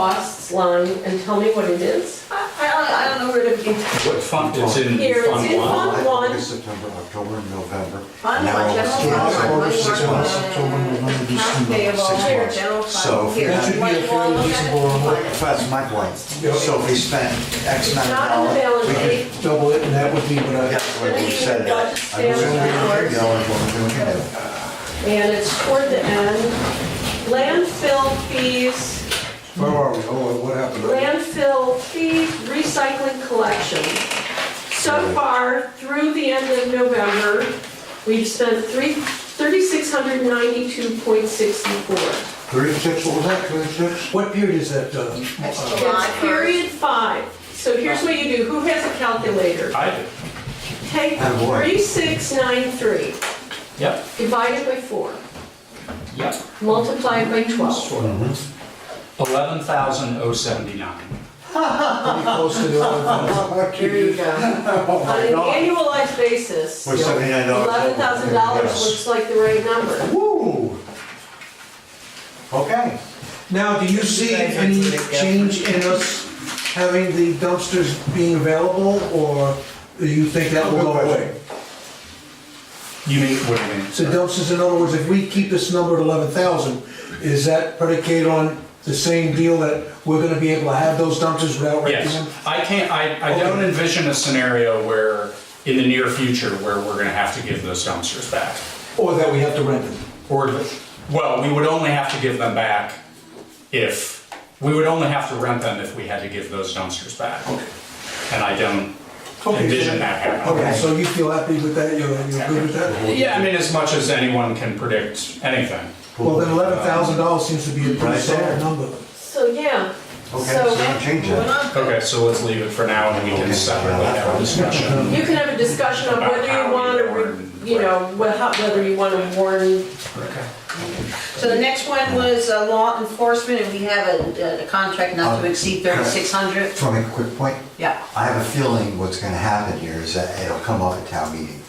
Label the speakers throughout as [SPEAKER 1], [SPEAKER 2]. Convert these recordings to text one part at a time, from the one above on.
[SPEAKER 1] costs line and tell me what it is?
[SPEAKER 2] I, I don't, I don't know where to begin.
[SPEAKER 3] What font it's in?
[SPEAKER 1] Here, it's
[SPEAKER 3] font
[SPEAKER 1] in
[SPEAKER 3] one.
[SPEAKER 1] font. one.
[SPEAKER 4] August, September, October, November.
[SPEAKER 2] Fund
[SPEAKER 4] Now
[SPEAKER 2] one,
[SPEAKER 4] it's
[SPEAKER 2] general
[SPEAKER 4] two
[SPEAKER 2] fund
[SPEAKER 4] months,
[SPEAKER 2] one,
[SPEAKER 4] October, six months, October,
[SPEAKER 2] money market,
[SPEAKER 4] November,
[SPEAKER 2] Accounts
[SPEAKER 4] December,
[SPEAKER 2] payable,
[SPEAKER 4] six
[SPEAKER 2] here,
[SPEAKER 4] months.
[SPEAKER 2] general fund.
[SPEAKER 4] So if
[SPEAKER 2] here.
[SPEAKER 4] we
[SPEAKER 2] You
[SPEAKER 4] had- That
[SPEAKER 2] want- you wanna look at it? Fine.
[SPEAKER 4] That's my point. So if we spent X amount of
[SPEAKER 1] Not in the
[SPEAKER 4] dollars,
[SPEAKER 1] balance
[SPEAKER 4] we
[SPEAKER 1] sheet.
[SPEAKER 4] could
[SPEAKER 5] double it, and that would be what I,
[SPEAKER 4] That's what we said. it.
[SPEAKER 1] Got
[SPEAKER 4] I
[SPEAKER 1] to stay on
[SPEAKER 4] was gonna
[SPEAKER 1] the
[SPEAKER 4] be going to we can do.
[SPEAKER 1] And it's toward the end. Landfill fees,
[SPEAKER 5] where are we, oh, what happened?
[SPEAKER 1] landfill fee recycling collection. So far, through the end of November, we've spent three, thirty-six hundred ninety-two point sixty-four.
[SPEAKER 4] Thirty-six, what was that, thirty-six?
[SPEAKER 5] What period is that, uh, uh,
[SPEAKER 1] That's period five. So here's what you do, who has a calculator?
[SPEAKER 3] I do.
[SPEAKER 1] Take
[SPEAKER 4] Oh, boy.
[SPEAKER 1] three six nine three,
[SPEAKER 3] Yep,
[SPEAKER 1] divide it by four,
[SPEAKER 3] yep.
[SPEAKER 1] multiply it by twelve.
[SPEAKER 3] Eleven thousand oh seventy-nine.
[SPEAKER 5] pretty close to the
[SPEAKER 1] Uh-huh.
[SPEAKER 5] other one?
[SPEAKER 1] There you go.
[SPEAKER 4] Oh
[SPEAKER 1] On an annualized basis,
[SPEAKER 4] With seventy-nine dollars.
[SPEAKER 1] eleven thousand dollars looks like the right number.
[SPEAKER 4] Woo! Okay.
[SPEAKER 5] Now, do you see any change in us having the dumpsters being available, or do you think that will go away?
[SPEAKER 3] You mean, what do you mean?
[SPEAKER 5] So dumpsters, in other words, if we keep this number at eleven thousand, is that predicated on the same deal that we're gonna be able to have those dumpsters without renting them?
[SPEAKER 3] Yes, I can't, I, I don't envision a scenario where, in the near future, where we're gonna have to give those dumpsters back.
[SPEAKER 5] Or that we have to rent them?
[SPEAKER 3] Or, the- well, we would only have to give them back if, we would only have to rent them if we had to give those dumpsters back. And I don't
[SPEAKER 5] Okay, so-
[SPEAKER 3] envision that happening.
[SPEAKER 5] Okay, so you feel happy with that, you're, you're good with that?
[SPEAKER 3] Yeah, I mean, as much as anyone can predict anything.
[SPEAKER 5] Well, then eleven thousand dollars seems to be a pretty
[SPEAKER 4] Right there.
[SPEAKER 5] solid number.
[SPEAKER 1] So, yeah.
[SPEAKER 4] Okay, so we don't change
[SPEAKER 2] We're
[SPEAKER 4] that.
[SPEAKER 2] not-
[SPEAKER 3] Okay, so let's leave it for now and we can
[SPEAKER 4] Okay.
[SPEAKER 3] separately have a discussion.
[SPEAKER 1] You can have a discussion on
[SPEAKER 3] About
[SPEAKER 1] whether
[SPEAKER 3] how
[SPEAKER 1] you
[SPEAKER 3] we
[SPEAKER 1] want
[SPEAKER 3] warn,
[SPEAKER 1] to, you know, wh- how- whether you want to warn,
[SPEAKER 2] So the next one was uh, law enforcement, and we have a, a contract not to exceed thirty-six hundred.
[SPEAKER 4] Just want to make a quick point.
[SPEAKER 2] Yeah.
[SPEAKER 4] I have a feeling what's gonna happen here is that it'll come up at town meeting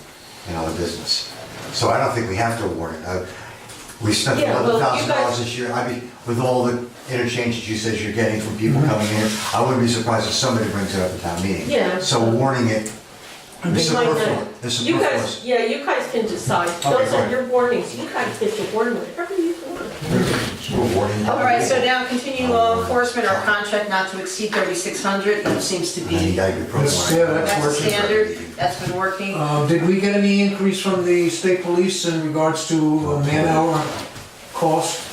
[SPEAKER 4] in other business. So I don't think we have to warn it. Uh, We spent
[SPEAKER 1] Yeah, well,
[SPEAKER 4] eleven
[SPEAKER 1] you
[SPEAKER 4] thousand dollars
[SPEAKER 1] guys-
[SPEAKER 4] this year, I mean, with all the interchange that you said you're getting from people coming here, I wouldn't be surprised if somebody brings it up at town meeting.
[SPEAKER 1] Yeah.
[SPEAKER 4] So warning it is
[SPEAKER 1] They might
[SPEAKER 4] superfluous.
[SPEAKER 1] not.
[SPEAKER 4] It's
[SPEAKER 1] you
[SPEAKER 4] superfluous.
[SPEAKER 1] guys, yeah, you guys can decide.
[SPEAKER 4] Okay,
[SPEAKER 1] Those are
[SPEAKER 4] fine.
[SPEAKER 1] your warnings, you guys get to warn whatever you want.
[SPEAKER 4] We're warning.
[SPEAKER 2] All right, so now continue law enforcement, our contract not to exceed thirty-six hundred, that seems to
[SPEAKER 4] And you
[SPEAKER 2] be,
[SPEAKER 4] gotta be pro
[SPEAKER 5] That's- yeah, that's
[SPEAKER 2] that's the
[SPEAKER 5] working.
[SPEAKER 2] standard, that's been working.
[SPEAKER 5] Uh, did we get any increase from the state police in regards to uh, man-hour cost?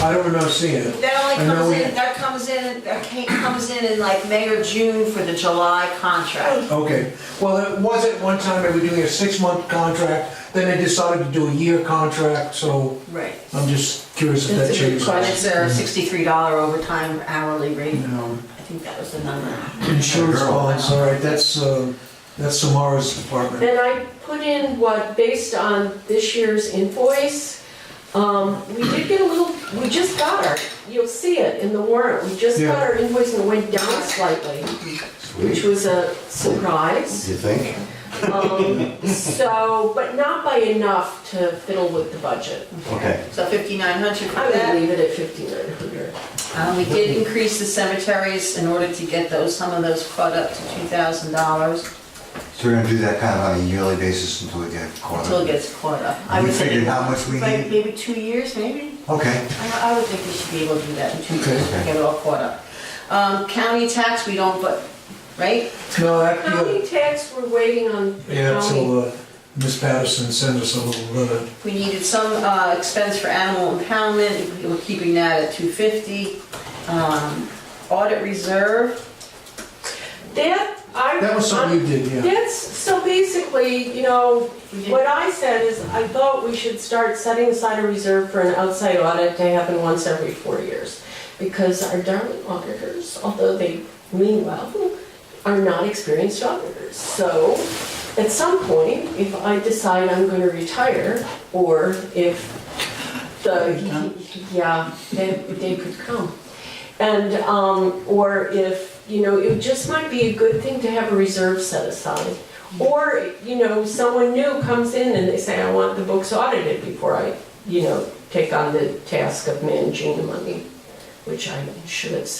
[SPEAKER 5] I don't remember seeing it.
[SPEAKER 2] That only
[SPEAKER 5] I know
[SPEAKER 2] comes
[SPEAKER 5] we-
[SPEAKER 2] in, that comes in, that ca- comes in in like May or June for the July contract.
[SPEAKER 5] Okay, well, it was at one time, they were doing a six-month contract, then they decided to do a year contract, so
[SPEAKER 2] Right.
[SPEAKER 5] I'm just curious if that
[SPEAKER 1] That's a good
[SPEAKER 5] changed.
[SPEAKER 2] And it's a sixty-three dollar overtime hourly rate,
[SPEAKER 5] Um,
[SPEAKER 2] I think that was the number.
[SPEAKER 5] Insurance bonds, all right, that's, uh, that's Samara's department.
[SPEAKER 1] Then I put in what, based on this year's invoice, um, we did get a little, we just got our, you'll see it in the warrant, we just got
[SPEAKER 5] Yeah.
[SPEAKER 1] our invoice and it went down slightly, which was a surprise.
[SPEAKER 4] You think?
[SPEAKER 1] Um, So, but not by enough to fiddle with the budget.
[SPEAKER 4] Okay.
[SPEAKER 2] So fifty-nine hundred for
[SPEAKER 1] I would
[SPEAKER 2] that.
[SPEAKER 1] leave it at fifty-nine hundred.
[SPEAKER 2] Uh, we did increase the cemeteries in order to get those, some of those caught up to two thousand dollars
[SPEAKER 4] So we're gonna do that kind of on a yearly basis until we get caught
[SPEAKER 2] until it
[SPEAKER 4] up.
[SPEAKER 2] gets caught up. I
[SPEAKER 4] You
[SPEAKER 2] would think-
[SPEAKER 4] figured how much we
[SPEAKER 2] Like,
[SPEAKER 4] need?
[SPEAKER 2] Maybe two years, maybe?
[SPEAKER 4] Okay.
[SPEAKER 2] I I would think we should be able to do that in two
[SPEAKER 5] Okay.
[SPEAKER 2] years, get it all caught up. Um, County tax, we don't, but, right?
[SPEAKER 5] No, that, yeah,
[SPEAKER 1] County tax, we're waiting on
[SPEAKER 5] yeah,
[SPEAKER 1] county.
[SPEAKER 5] till, uh, Ms. Patterson sends us a little letter.
[SPEAKER 2] We needed some uh, expense for animal impoundment, we're keeping that at 250. Um, Audit reserve,
[SPEAKER 1] That, I.
[SPEAKER 5] That was something you did, yeah.
[SPEAKER 1] That's, so basically, you know,
[SPEAKER 2] we
[SPEAKER 1] What
[SPEAKER 2] did,
[SPEAKER 1] I said is, I thought we should start setting aside a reserve for an outside audit to happen once every four years. Because our darling auditors, although they mean well, are not experienced auditors. So at some point, if I decide I'm gonna retire, or if the, yeah, they, they could come. And, um, or if, you know, it just might be a good thing to have a reserve set aside. Or, you know, someone new comes in and they say, I want the books audited before I, you know, take on the task of managing the money, which I should have said.